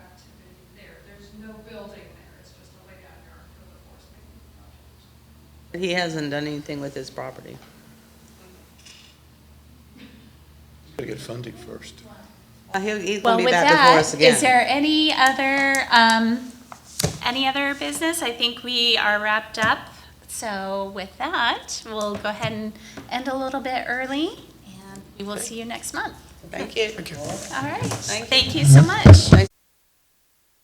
He hasn't done anything with his property. Gotta get funding first. Uh, He'll, he's Well, gonna be with back before that, us again. is there any other, um, any other business? I think we are wrapped up. So with that, we'll go ahead and end a little bit early, and we will see you next month. Thank you. All right. you. Thank you so much.